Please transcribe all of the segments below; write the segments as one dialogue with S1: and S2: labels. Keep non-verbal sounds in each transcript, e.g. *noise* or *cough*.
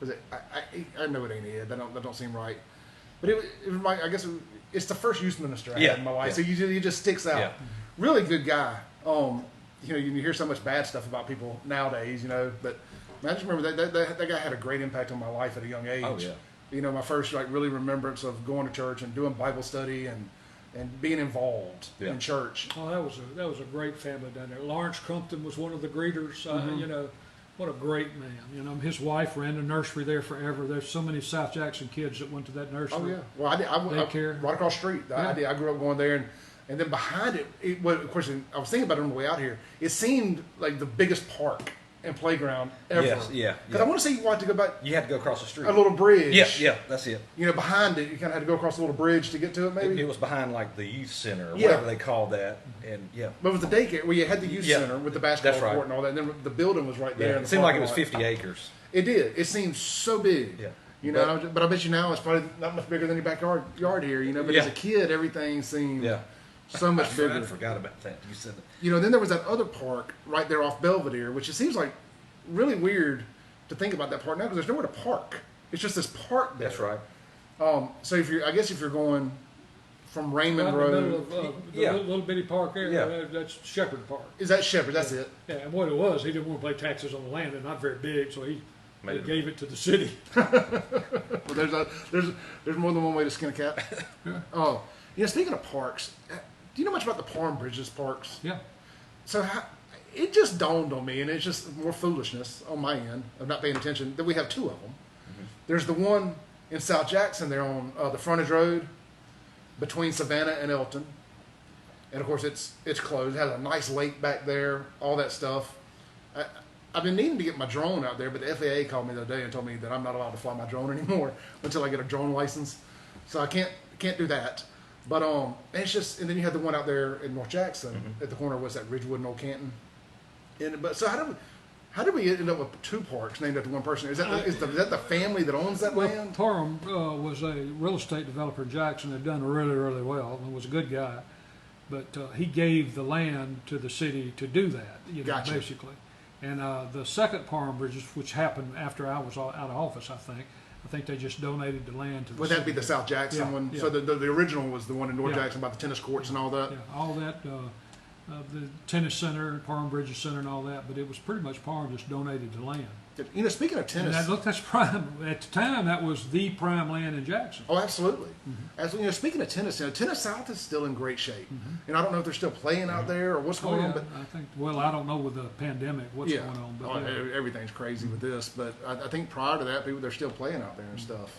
S1: Was it? I, I, I know it ain't it. That don't that don't seem right. But it, was- it was my I guess it was- it's the first youth minister I
S2: Yeah,
S1: had in my life.
S2: yeah.
S1: So you ju- he just sticks out.
S2: Yeah.
S1: Really good guy. Um, you know, you hear so much bad stuff about people nowadays. You know, but man, I just remember that that, that that guy had a great impact on my life at a young age.
S2: Oh, yeah.
S1: You know, my first like really remembrance of going to church and doing Bible study and and being involved
S2: Yeah.
S1: in church.
S3: Oh, that was a that was a great family down there. Lawrence Crumpton was one of the greeters. Uh, You know, what a great man. You know, his wife ran the nursery there forever. There's so many South Jackson kids that went to that nursery.
S1: Oh yeah. Well, I did. I, I,
S3: Daycare.
S1: right across the street. I- I
S3: Yeah.
S1: did. I grew up going there, and and then behind it, it was, of course. I was thinking about it on the way out here. It seemed like the biggest park and playground ever.
S2: Yes, yeah,
S1: Because I
S2: yeah.
S1: want to say you wanted to go back
S2: You had to go across the street.
S1: a little bridge.
S2: Yeah, yeah, that's it.
S1: You know, behind it, you kind of had to go across a little bridge to get to it,
S2: It,
S1: maybe.
S2: it was behind like the youth center or
S1: Yeah.
S2: whatever they called that, and yeah,
S1: but with the daycare, well, you had the youth
S2: Yeah,
S1: center with the basketball
S2: that's right.
S1: court and all that, and then the building was right there.
S2: yeah.
S1: in
S2: It
S1: the
S2: seemed like it
S1: parking
S2: was
S1: lot.
S2: 50 acres.
S1: It did. It seemed so big.
S2: Yeah.
S1: You know,
S2: But-
S1: I was- but, I bet you now it's probably not much bigger than your backyard yard here. You know, but as a
S2: Yeah.
S1: kid, everything seemed
S2: Yeah.
S1: so
S2: I,
S1: Mm-hmm. much
S2: forgot- I
S1: bigger.
S2: forgot about that. You said that.
S1: You know, then there was that other park right there off Belvedere, which it seems like really weird to think about that park now because there's nowhere to park. It's just this park there.
S2: That's right.
S1: Um, so if you're, I guess if you're going from
S3: Right
S1: Raymond
S3: in the middle
S1: Road,
S3: of uh, the
S2: Yeah.
S3: little, little bitty park there.
S2: Yeah.
S3: Uh, that's Shepherd Park.
S1: is that Shepherd? That's it.
S3: Yeah, and what it was, he didn't want to pay taxes on the land. They're not very big, so he,
S2: Made
S3: he
S2: it-
S3: gave it to the city.
S1: Well, there's a, there's there's more than one way to skin a cat. *laughs* Oh, yeah. Speaking of parks, uh, do you know much about the Palm Bridges parks?
S3: *laughs* Yeah.
S1: So how, it just dawned on me, and it's just more foolishness on my end of not paying attention that we have two of them. There's the one in South Jackson there on uh, the frontage road between Savannah and Elton, and of course it's it's closed. It has a nice lake back there, all that stuff. I, I've been needing to get my drone out there, but the FAA called me the other day and told me that I'm not allowed to fly my drone *laughs* anymore until I get a drone license. So I can't can't do that. But um, it's just and then you had the one out there in North Jackson at the corner was that Ridgewood and Old Canton. And but so how do we, how did we end up with two parks named after one person? Is that the, is, the, is that the family that owns that
S3: Well,
S1: land?
S3: Parham uh, was a real estate developer in Jackson that done really, really well and was a good guy. But uh, he gave the land to the city to do that, you know,
S1: Gotcha.
S3: basically. And uh, the second Parham Bridges, which happened after I was out out of office, I think, I think they just donated the land to the
S1: Would
S3: city.
S1: that be the South Jackson
S3: Yeah,
S1: one?
S3: yeah.
S1: So the, the the original was the one in North
S3: Yeah.
S1: Jackson by the tennis courts and all that.
S3: Yeah, all that, uh, uh, the tennis center, Parham Bridges Center, and all that. But it was pretty much Parham just donated the land.
S1: You know, speaking of
S3: And
S1: tennis,
S3: that, look, that's prime. At the time, that was the prime land in Jackson.
S1: Oh, absolutely.
S3: Mm-hmm.
S1: As you know, speaking of tennis, you know, tennis South is still in great shape, and I don't know if they're still playing out there or what's
S3: Mm-hmm. Oh,
S1: going
S3: yeah,
S1: on, but
S3: I think. Well, I don't know with the pandemic what's
S1: yeah,
S3: going on, but
S1: Oh,
S3: yeah.
S1: e- everything's crazy with this. But I, I think prior to that, people they're still playing out there and
S3: Mm-hmm.
S1: stuff.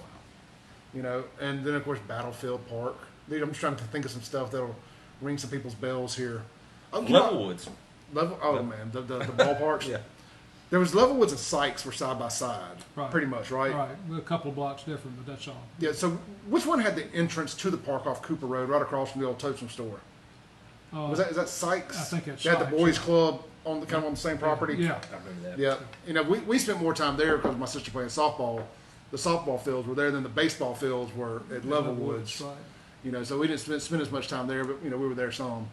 S1: You know, and then of course Battlefield Park. Dude, I'm just trying to think of some stuff that'll ring some people's bells here. Oh, you know,
S2: Levelwoods.
S1: Level, oh man, the the, the ballparks.
S2: Yeah.
S1: There was Levelwoods and Sykes were side by side,
S3: Right.
S1: pretty much,
S3: right, a couple of blocks different, but that's all.
S1: Yeah. So which one had the entrance to the park off Cooper Road, right across from the old Totem store?
S3: Uh,
S1: Was that is that Sykes?
S3: I think it's
S1: They had the
S3: Sykes,
S1: boys' club on the kind of on the same property.
S3: Yeah,
S2: I remember that.
S1: Yeah. You know, we, we spent more time there because my sister playing softball. The softball fields were there than the baseball fields were at Levelwoods.
S3: right.
S1: You know, so we didn't spend, spend as much time there, but you know we were there some.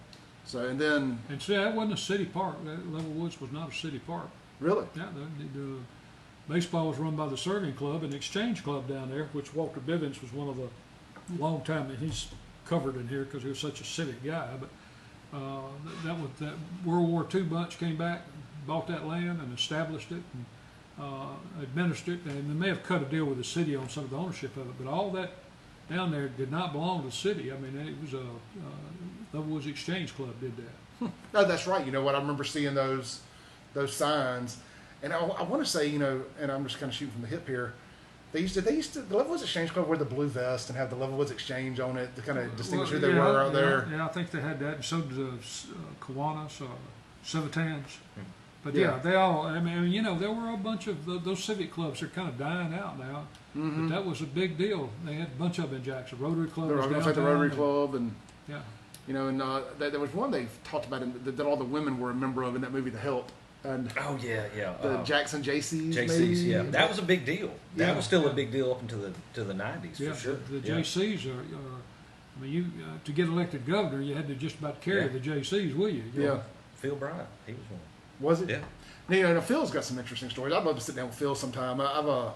S1: So and then
S3: And see, that wasn't a city park. That Level Woods was not a city park.
S1: really,
S3: Yeah, the, the, the baseball was run by the Serving Club and Exchange Club down there, which Walter Bivens was one of the long time, and he's covered in here because he was such a civic guy. But uh, that, that was that World War II bunch came back, bought that land and established it and uh, administered it, and they may have cut a deal with the city on some of the ownership of it, but all that down there did not belong to the city. I mean, it was a uh, Levelwoods Exchange Club did that.
S1: no, that's right. You know what? I remember seeing those those signs, and I, I want to say you know, and I'm just kind of shooting from the hip here. They used to they used to the Levelwoods Exchange Club wear the blue vest and have the Levelwoods Exchange on it to kind of distinguish who
S3: Well,
S1: they
S3: yeah,
S1: were out
S3: yeah,
S1: there.
S3: Yeah, I think they had that, and so did the S- uh, Kiwanis, uh, Civitans.
S1: Hmm.
S3: But
S1: Yeah.
S3: yeah. they all. I mean, you know, there were a bunch of tho- those civic clubs are kind of dying out now.
S2: Mm-hmm.
S3: But that was a big deal. They had a bunch of them in Jackson. Rotary Club
S1: The,
S3: was
S1: I was
S3: downtown.
S1: gonna say the Rotary
S3: and-
S1: Club and
S3: Yeah,
S1: You know, and uh, there, there was one they talked about in, that, that all the women were a member of in that movie, The Help, and
S2: Oh yeah, yeah.
S1: the
S2: uh,
S1: Jackson JCs. maybe?
S2: JC's. Yeah, that was a big deal. That
S1: Yeah.
S2: was still a big deal up until the to the 90s
S3: yeah.
S2: for sure.
S3: The, the
S2: Yeah.
S3: JCs are. are I mean, you uh, to get elected governor, you had to just about carry
S2: Yeah.
S3: the JCs, will you? You
S1: yeah.
S3: know?
S2: Phil Bryant, he was one.
S1: Was it?
S2: Yeah.
S1: Now, you know, Phil's got some interesting stories. I'd love to sit down with Phil sometime. I- I've uh,